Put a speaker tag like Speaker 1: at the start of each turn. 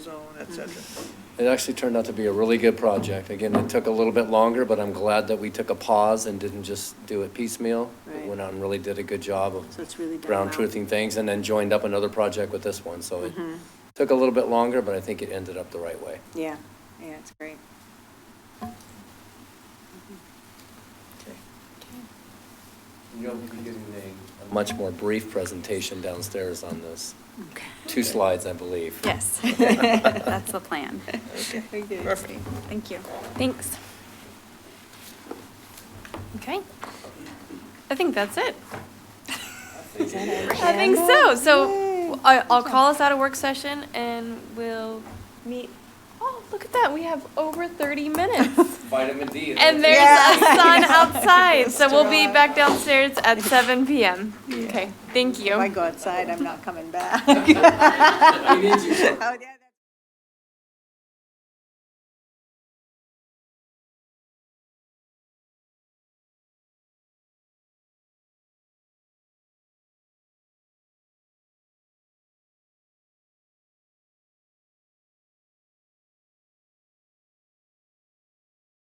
Speaker 1: zone, et cetera.
Speaker 2: It actually turned out to be a really good project. Again, it took a little bit longer, but I'm glad that we took a pause and didn't just do it piecemeal. We
Speaker 3: Right.
Speaker 2: Went out and really did a good job of
Speaker 3: So it's really done
Speaker 2: ground
Speaker 3: well. Mm-hmm.
Speaker 2: truthing things and then joined up another project with this one. So it took a little bit longer, but I think it ended up the right way.
Speaker 3: Yeah, yeah, it's great.
Speaker 2: Mm-hmm. You'll be getting a. Much more brief presentation downstairs on this.
Speaker 4: Okay.
Speaker 2: Two slides, I believe.
Speaker 4: Yes, that's the plan.
Speaker 3: Very good.
Speaker 1: Perfect.
Speaker 4: Thank you. Thanks. Okay. I think that's it. I think so. So I- I'll call us out of work session and we'll meet. Oh, look at that. We have over 30 minutes.
Speaker 2: Vitamin D.
Speaker 4: And there's a sun outside. So we'll be back downstairs at 7 PM. Okay, thank you.
Speaker 3: If I go outside, I'm not coming back.
Speaker 2: We need you.
Speaker 3: Oh, yeah.